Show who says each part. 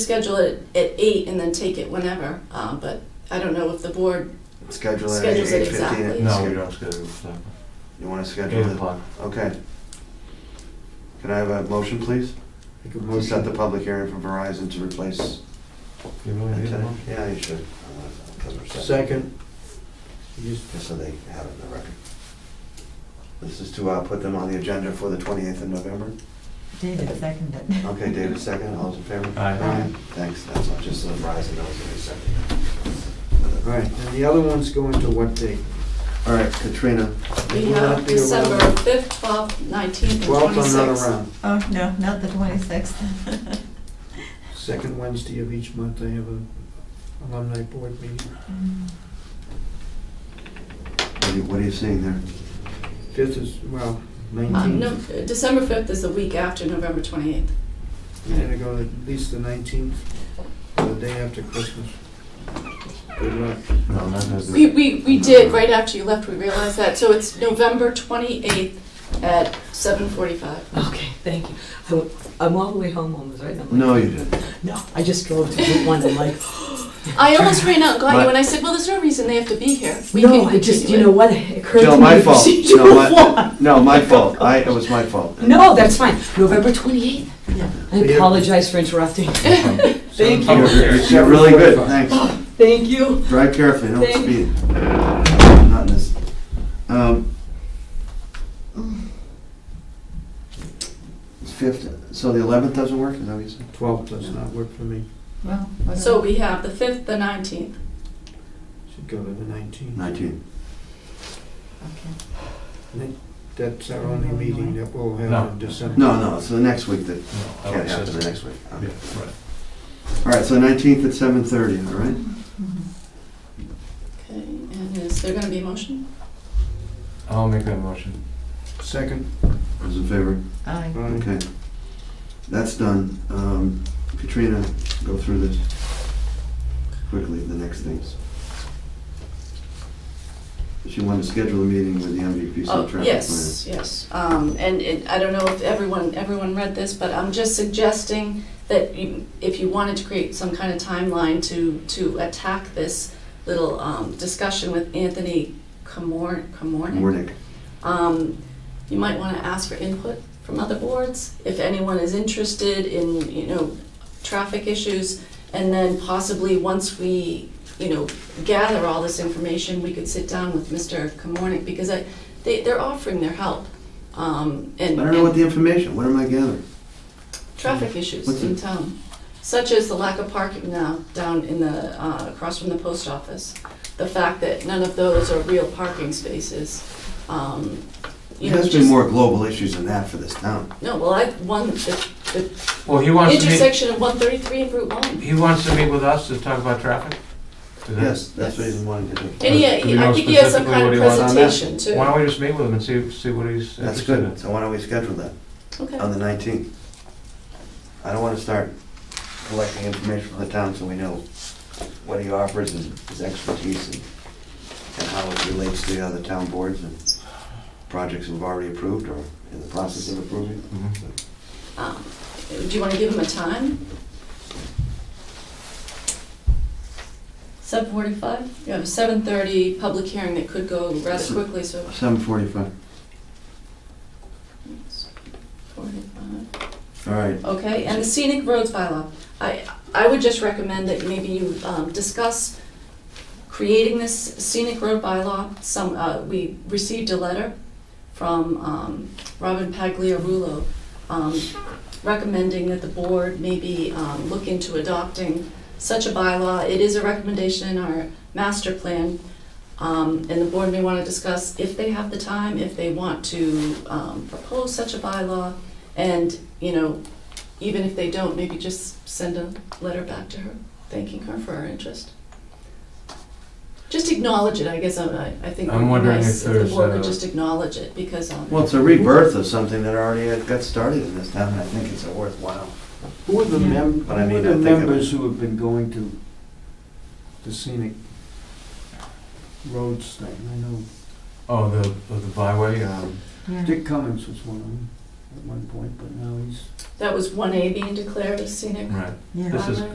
Speaker 1: schedule it at eight and then take it whenever, uh, but I don't know if the board,
Speaker 2: Schedule it at
Speaker 1: Schedules it
Speaker 2: eight fifteen.
Speaker 1: exactly.
Speaker 3: No, we don't schedule it.
Speaker 2: You wanna
Speaker 3: Eight
Speaker 2: schedule it?
Speaker 3: o'clock.
Speaker 2: Okay. Can I have a motion, please?
Speaker 4: Make a
Speaker 2: To set the
Speaker 4: motion,
Speaker 2: public hearing for Verizon to replace
Speaker 3: You really need
Speaker 2: antenna?
Speaker 3: one?
Speaker 2: Yeah, you should.
Speaker 4: second. Just
Speaker 2: Just so they have it in the record. This is to, uh, put them on the agenda for the twenty-eighth of November.
Speaker 5: David seconded it.
Speaker 2: Okay, David, second, all's in favor?
Speaker 3: Aye.
Speaker 5: Aye.
Speaker 2: Thanks, that's all, just so Verizon knows that they second.
Speaker 4: All right, and the other one's going to what date?
Speaker 2: All right, Katrina,
Speaker 1: we
Speaker 4: Will
Speaker 1: have
Speaker 4: that be around
Speaker 1: December fifth, twelfth, nineteenth, and
Speaker 4: Twelfth,
Speaker 1: twenty-sixth.
Speaker 4: another round.
Speaker 5: Oh, no, not the twenty-sixth.
Speaker 4: Second Wednesday of each month, I have a alumni board meeting.
Speaker 2: what are you, what are you seeing there?
Speaker 4: Fifth is, well,
Speaker 1: Uh, no,
Speaker 4: nineteenth.
Speaker 1: uh, December fifth is the week after November twenty-eighth.
Speaker 4: I'm gonna go at least the nineteenth, the day after Christmas. Good luck.
Speaker 3: No, not that.
Speaker 1: We, we, we did, right after you left, we realized that, so it's November twenty-eighth at seven forty-five.
Speaker 6: Okay, thank you. I wa- I'm all the way home almost, right? I'm like,
Speaker 2: No, you didn't.
Speaker 6: No, I just drove to Route One, I'm like,
Speaker 1: I almost ran out and got
Speaker 2: My-
Speaker 1: you, and I said, well, there's no reason they have to be here. We
Speaker 6: no,
Speaker 1: can- we
Speaker 6: I
Speaker 1: can
Speaker 6: just,
Speaker 1: do
Speaker 6: you
Speaker 1: it."
Speaker 6: know what, it occurred
Speaker 2: No,
Speaker 6: to me,
Speaker 2: my fault. No,
Speaker 6: procedural
Speaker 2: my,
Speaker 6: flaw.
Speaker 2: no, my fault. I, it was my fault.
Speaker 6: No, that's fine, November twenty-eighth. I
Speaker 4: Yeah.
Speaker 6: apologize for interrupting. Thank
Speaker 2: You're,
Speaker 4: Seven
Speaker 6: you,
Speaker 4: forty-five.
Speaker 2: you're- you're really good, thanks.
Speaker 6: thank you.
Speaker 2: Drive carefully, don't
Speaker 6: Thank-
Speaker 2: speed. Not in this. Um, Fifth, so the eleventh doesn't work, is that what you said?
Speaker 4: Twelfth does not work for me,
Speaker 5: Well,
Speaker 1: So we have the fifth, the nineteenth.
Speaker 4: should go to the nineteenth.
Speaker 2: Nineteen.
Speaker 5: okay.
Speaker 4: That's our only meeting that we'll
Speaker 3: No.
Speaker 4: have in December.
Speaker 2: No, no, so the next week, that
Speaker 3: No, I
Speaker 2: can't
Speaker 3: would
Speaker 2: happen, the
Speaker 3: say-
Speaker 2: next week.
Speaker 3: Oh, Yeah,
Speaker 2: Okay.
Speaker 3: right.
Speaker 2: All right, so nineteenth at seven thirty, all right?
Speaker 5: Mm-hmm.
Speaker 1: Okay, and is there gonna be a motion?
Speaker 3: I'll make that motion.
Speaker 4: Second,
Speaker 2: Those in favor?
Speaker 5: Aye.
Speaker 4: all right.
Speaker 2: Okay. That's done. Um, Katrina, go through this quickly, the next things. She wanted to schedule a meeting with the MVPC
Speaker 1: Oh,
Speaker 2: traffic plan.
Speaker 1: yes, yes. Um, and it, I don't know if everyone, everyone read this, but I'm just suggesting that you, if you wanted to create some kind of timeline to, to attack this little, um, discussion with Anthony Camor, Camornick,
Speaker 2: Warnick.
Speaker 1: um, you might wanna ask for input from other boards, if anyone is interested in, you know, traffic issues. And then possibly, once we, you know, gather all this information, we could sit down with Mr. Camornick, because I, they, they're offering their help. Um,
Speaker 2: I
Speaker 1: and,
Speaker 2: don't know what
Speaker 1: and
Speaker 2: the information, what am I gathering?
Speaker 1: traffic issues
Speaker 2: What's
Speaker 1: in
Speaker 2: it?
Speaker 1: town, such as the lack of parking now down in the, uh, across from the post office. The fact that none of those are real parking spaces, um, you
Speaker 2: There
Speaker 1: know,
Speaker 2: has been
Speaker 1: just,
Speaker 2: more global issues than that for this town.
Speaker 1: no, well, I, one, the, the
Speaker 3: Well, he wants to meet,
Speaker 1: intersection of one thirty-three and Route one.
Speaker 3: he wants to meet with us to talk about traffic? Is that-
Speaker 2: Yes, that's what he's wanting to do.
Speaker 1: And he,
Speaker 3: Do we know
Speaker 1: I think he has some
Speaker 3: specifically
Speaker 1: kind of
Speaker 3: what he wants
Speaker 2: on that?
Speaker 1: presentation too.
Speaker 3: Why don't we just meet with him and see, see what he's
Speaker 2: That's
Speaker 3: interested in?
Speaker 2: good, so why don't we schedule that
Speaker 1: Okay.
Speaker 2: on the nineteenth? I don't wanna start collecting information from the town so we know what he offers and his expertise and, and how it relates to the other town boards and projects we've already approved or in the process of approving.
Speaker 3: Mhm.
Speaker 1: Um, Do you want to give him a time? Seven forty-five? You have a seven thirty public hearing that could go rather quickly, so.
Speaker 2: Seven forty-five.
Speaker 1: Forty-five.
Speaker 2: All right,
Speaker 1: Okay, and the scenic roads bylaw. I, I would just recommend that maybe you um, discuss creating this scenic road bylaw. Some, uh, we received a letter from um, Robin Pagliarulo um, recommending that the board maybe um, look into adopting such a bylaw. It is a recommendation in our master plan, um, and the board may want to discuss if they have the time, if they want to um, propose such a bylaw, and, you know, even if they don't, maybe just send a letter back to her, thanking her for her interest. Just acknowledge it, I guess, I, I think it
Speaker 3: I'm
Speaker 1: would be
Speaker 3: wondering if
Speaker 1: nice if the
Speaker 3: there's,
Speaker 1: board
Speaker 3: uh,
Speaker 1: would just acknowledge it, because, um,
Speaker 2: well, it's a rebirth of something that already had- got started in this town, and I think it's a worthwhile.
Speaker 4: Who are the
Speaker 5: Yeah.
Speaker 4: mem, who
Speaker 2: But I mean,
Speaker 4: are
Speaker 2: I
Speaker 4: the
Speaker 2: think it
Speaker 4: members
Speaker 2: was-
Speaker 4: who have been going to the scenic roads thing? I know
Speaker 3: Oh, the, the byway, um,
Speaker 5: Yeah.
Speaker 4: Dick Cummings was one of them at one point, but now he's
Speaker 1: that was one A being declared a scenic
Speaker 3: right.
Speaker 5: Yeah.
Speaker 3: This is